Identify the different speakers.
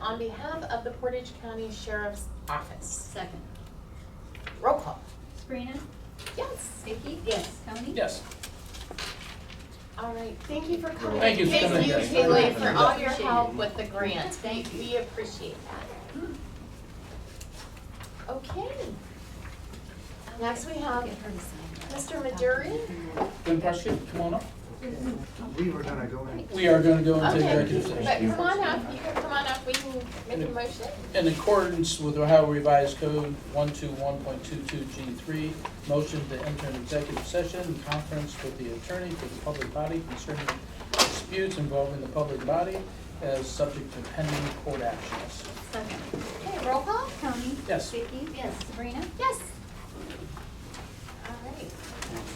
Speaker 1: on behalf of the Portage County Sheriff's Office.
Speaker 2: Second.
Speaker 1: Roll call.
Speaker 2: Sabrina?
Speaker 1: Yes.
Speaker 2: Vicky? Yes. Tony?
Speaker 3: Yes.
Speaker 1: all right, thank you for coming.
Speaker 3: Thank you for
Speaker 1: Thank
Speaker 3: coming.
Speaker 1: you, Kaylee, for all your help with the grant.
Speaker 2: Thank you.
Speaker 1: We appreciate that. Okay. Next we have
Speaker 2: Get her to sign that.
Speaker 1: Mr. Maduri.
Speaker 3: Lynn Prescott, come on up.
Speaker 4: We were gonna go in.
Speaker 3: We are going to go into
Speaker 1: Okay,
Speaker 3: executive session.
Speaker 1: but come on up, you can come on up, we can make a motion.
Speaker 3: In accordance with Ohio Revised Code 121.22G3, motion to enter an executive session in conference with the attorney for the public body concerning disputes involving the public body as subject to pending court actions.
Speaker 2: Second.
Speaker 1: Okay, roll call?
Speaker 2: Tony?
Speaker 3: Yes.
Speaker 2: Vicky? Yes. Sabrina?
Speaker 1: Yes.